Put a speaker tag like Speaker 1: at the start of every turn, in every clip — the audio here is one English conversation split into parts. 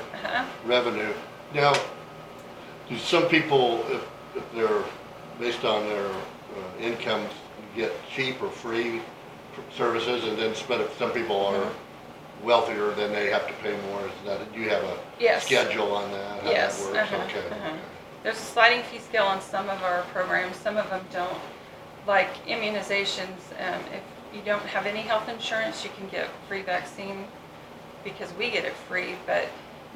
Speaker 1: Uh-huh.
Speaker 2: revenue. Now, do some people, if, if they're, based on their uh, incomes, get cheap or free services and then spend it, some people are
Speaker 1: Mm-hmm.
Speaker 2: wealthier, then they have to pay more, is that, do you have a
Speaker 1: Yes.
Speaker 2: schedule on that? how that
Speaker 1: Yes,
Speaker 2: works?
Speaker 1: uh-huh,
Speaker 2: Okay,
Speaker 1: uh-huh.
Speaker 2: okay.
Speaker 1: There's a sliding fee scale on some of our programs, some of them don't. Like immunizations, um, if you don't have any health insurance, you can get free vaccine because we get it free, but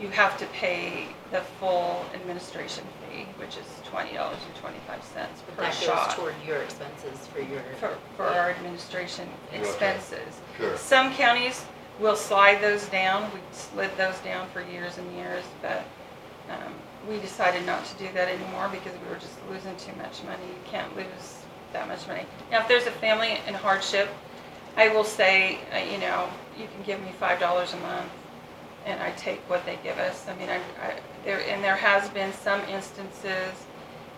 Speaker 1: you have to pay the full administration fee, which is twenty dollars and twenty-five cents per
Speaker 3: That goes
Speaker 1: shot.
Speaker 3: toward your expenses for your.
Speaker 1: For, for our administration
Speaker 2: You're okay.
Speaker 1: expenses.
Speaker 2: Sure.
Speaker 1: Some counties will slide those down, we slid those down for years and years, but, um, we decided not to do that anymore because we were just losing too much money, you can't lose that much money. Now, if there's a family in hardship, I will say, uh, you know, you can give me five dollars a month, and I take what they give us, I mean, I, I, there, and there has been some instances,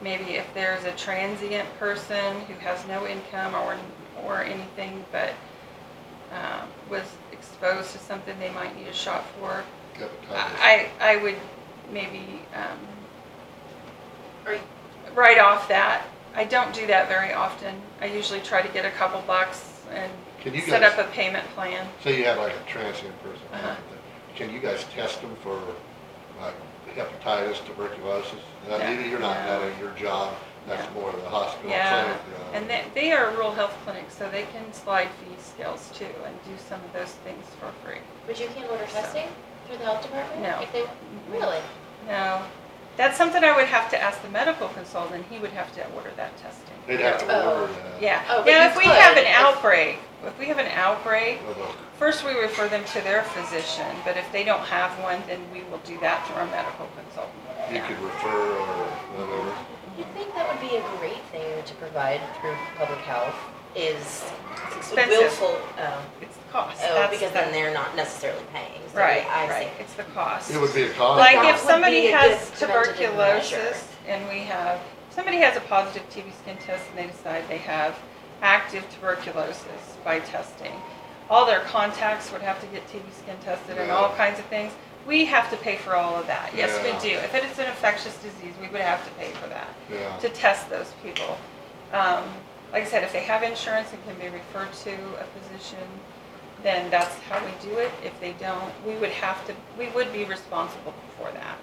Speaker 1: maybe if there's a transient person who has no income or, or anything, but, um, was exposed to something they might need a shot for,
Speaker 2: Got it, got it.
Speaker 1: I, I would maybe, um,
Speaker 3: Are you-
Speaker 1: write off that. I don't do that very often. I usually try to get a couple bucks and
Speaker 2: Can you
Speaker 1: set
Speaker 2: guys-
Speaker 1: up a payment plan.
Speaker 2: So you have like a transient person,
Speaker 1: Uh-huh.
Speaker 2: can you guys test them for like hepatitis, tuberculosis? Now,
Speaker 1: No.
Speaker 2: Maybe you're not, that
Speaker 1: No.
Speaker 2: at your job, that's
Speaker 1: No.
Speaker 2: more of the hospital
Speaker 1: Yeah,
Speaker 2: clinic. uh,
Speaker 1: and they, they are rural health clinics, so they can slide fee scales too and do some of those things for free.
Speaker 3: But you can't order testing through the health department?
Speaker 1: No.
Speaker 3: If they, really?
Speaker 1: No, that's something I would have to ask the medical consultant. He would have to order that testing.
Speaker 2: They'd have to
Speaker 3: Oh.
Speaker 2: order that.
Speaker 1: Yeah.
Speaker 3: Oh, but
Speaker 1: Now,
Speaker 3: you
Speaker 1: if we have
Speaker 3: could
Speaker 1: an
Speaker 3: if-
Speaker 1: outbreak, if we have an outbreak,
Speaker 2: Of a-
Speaker 1: First, we refer them to their physician, but if they don't have one, then we will do that through our medical consultant.
Speaker 2: You
Speaker 1: Yeah.
Speaker 2: could refer or whatever.
Speaker 3: You'd think that would be a great thing to provide through public health is
Speaker 1: expensive.
Speaker 3: willful, um,
Speaker 1: It's the cost.
Speaker 3: oh,
Speaker 1: That's
Speaker 3: because
Speaker 1: the-
Speaker 3: then they're not necessarily paying. So,
Speaker 1: Right,
Speaker 3: yeah, I see.
Speaker 1: right, it's the cost.
Speaker 2: It would be a cost.
Speaker 1: Like
Speaker 3: That
Speaker 1: if
Speaker 3: would
Speaker 1: somebody
Speaker 3: be a
Speaker 1: has
Speaker 3: good preventative measure.
Speaker 1: tuberculosis and we have, somebody has a positive TB skin test and they decide they have active tuberculosis by testing. All their contacts would have to get TB skin tested and all
Speaker 2: Yeah.
Speaker 1: kinds of things. We have to pay for all of that. Yes, we
Speaker 2: Yeah.
Speaker 1: do. If it is an infectious disease, we would have to pay for that.
Speaker 2: Yeah.
Speaker 1: to test those people. Um, Like I said, if they have insurance and can be referred to a physician, then that's how we do it. If they don't, we would have to, we would be responsible for that.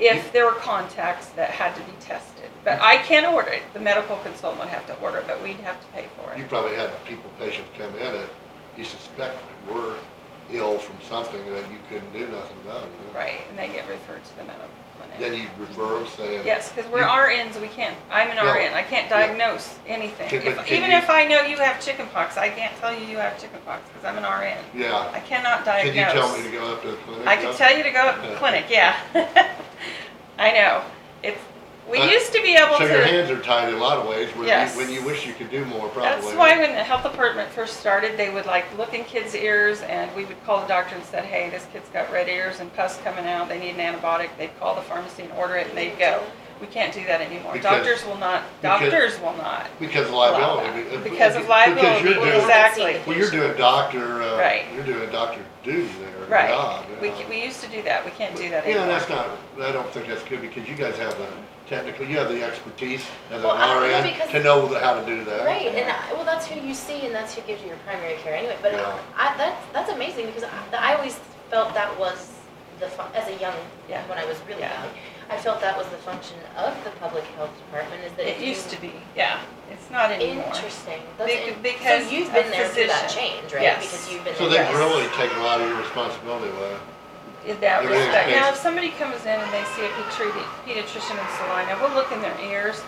Speaker 1: If there were contacts that had to be tested. But I can't order it. The medical consultant would have to order it, but we'd have to pay for
Speaker 2: You
Speaker 1: it.
Speaker 2: probably had people, patients come in that you suspect were ill from something that you couldn't do nothing about. you know?
Speaker 1: Right, and they get referred to the medical
Speaker 2: Then
Speaker 1: clinic.
Speaker 2: you refer them saying.
Speaker 1: Yes, because we're
Speaker 2: You-
Speaker 1: RNs, we can't, I'm an
Speaker 2: Yeah.
Speaker 1: RN, I can't
Speaker 2: Yeah.
Speaker 1: diagnose anything.
Speaker 2: Can- but
Speaker 1: If-
Speaker 2: can
Speaker 1: Even
Speaker 2: you-
Speaker 1: if I know you have chickenpox, I can't tell you you have chickenpox because I'm an RN. I
Speaker 2: Yeah.
Speaker 1: cannot
Speaker 2: Can
Speaker 1: diagnose.
Speaker 2: you tell me to go up to the clinic?
Speaker 1: I can tell you to go to the clinic, yeah. I know. It's, we
Speaker 2: Uh,
Speaker 1: used to be able
Speaker 2: So your
Speaker 1: to.
Speaker 2: hands are tied in a lot of ways when
Speaker 1: Yes.
Speaker 2: you, when you wish you could do more probably.
Speaker 1: That's why when the health department first started, they would like look in kids' ears and we would call the doctor and said, hey, this kid's got red ears and pus coming out, they need an antibiotic. They'd call the pharmacy and order it and they'd go. We can't do that anymore.
Speaker 2: Because-
Speaker 1: Doctors will not,
Speaker 2: because-
Speaker 1: doctors will not.
Speaker 2: Because of
Speaker 1: allow
Speaker 2: liability.
Speaker 1: that.
Speaker 2: be- uh,
Speaker 1: Because of
Speaker 2: Because
Speaker 1: liability,
Speaker 2: you're doing,
Speaker 3: Well, that's-
Speaker 1: exactly.
Speaker 2: well, you're doing doctor, uh,
Speaker 1: Right.
Speaker 2: you're doing doctor duty there.
Speaker 1: Right.
Speaker 2: job, you
Speaker 1: We,
Speaker 2: know.
Speaker 1: we used to do that. We can't do that
Speaker 2: You
Speaker 1: anymore.
Speaker 2: know, that's not, I don't think that's good because you guys have the technical, you have the expertise as an
Speaker 3: Well, I don't know,
Speaker 2: RN
Speaker 3: because-
Speaker 2: to know the- how to do that.
Speaker 3: Right, and I, well, that's who you see, and that's who gives you your primary care anyway. But
Speaker 2: Yeah.
Speaker 3: I, that's that's amazing because I, I always felt that was the fun, as a young
Speaker 1: Yeah.
Speaker 3: when I was really
Speaker 1: Yeah.
Speaker 3: young, I felt that was the function of the public health department is that
Speaker 1: It
Speaker 3: if
Speaker 1: used
Speaker 3: you,
Speaker 1: to be, yeah. It's not anymore.
Speaker 3: interesting. That's
Speaker 1: Bec-
Speaker 3: in-
Speaker 1: because
Speaker 3: so you've
Speaker 1: a
Speaker 3: been there through that
Speaker 1: physician-
Speaker 3: change, right?
Speaker 1: yes.
Speaker 3: Because you've been
Speaker 2: So
Speaker 3: there.
Speaker 2: they've really taken a lot of your responsibility away.
Speaker 1: in that
Speaker 2: It is
Speaker 1: respect.
Speaker 2: big.
Speaker 1: Now, if somebody comes in and they see a petri- pediatrician in Salina, we'll look in their ears,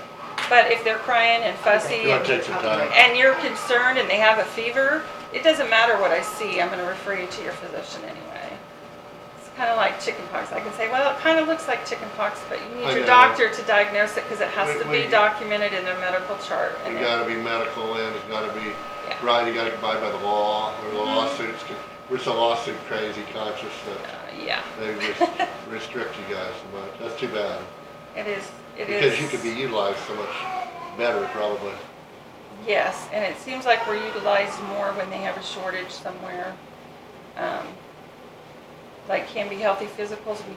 Speaker 1: but if they're crying and fussy
Speaker 2: You want to
Speaker 1: and
Speaker 2: take some time.
Speaker 1: and you're concerned and they have a fever, it doesn't matter what I see, I'm gonna refer you to your physician anyway. It's kinda like chickenpox. I can say, well, it kinda looks like chickenpox, but you
Speaker 2: I
Speaker 1: need your
Speaker 2: know.
Speaker 1: doctor to diagnose it because it has
Speaker 2: We-
Speaker 1: to
Speaker 2: we-
Speaker 1: be documented in their medical chart. and
Speaker 2: You
Speaker 1: it-
Speaker 2: gotta be medical and it's gotta be,
Speaker 1: Yeah. Mm-hmm.
Speaker 2: right, you gotta abide by the law or the lawsuits. 'cause We're so lawsuit crazy conscious
Speaker 1: uh,
Speaker 2: that
Speaker 1: Yeah,
Speaker 2: they res- restrict you guys so much. That's too bad.
Speaker 1: it is, it is.
Speaker 2: Because you could be utilized so much better probably.
Speaker 1: Yes, and it seems like we're utilized more when they have a shortage somewhere. Um, Like can be healthy physicals, we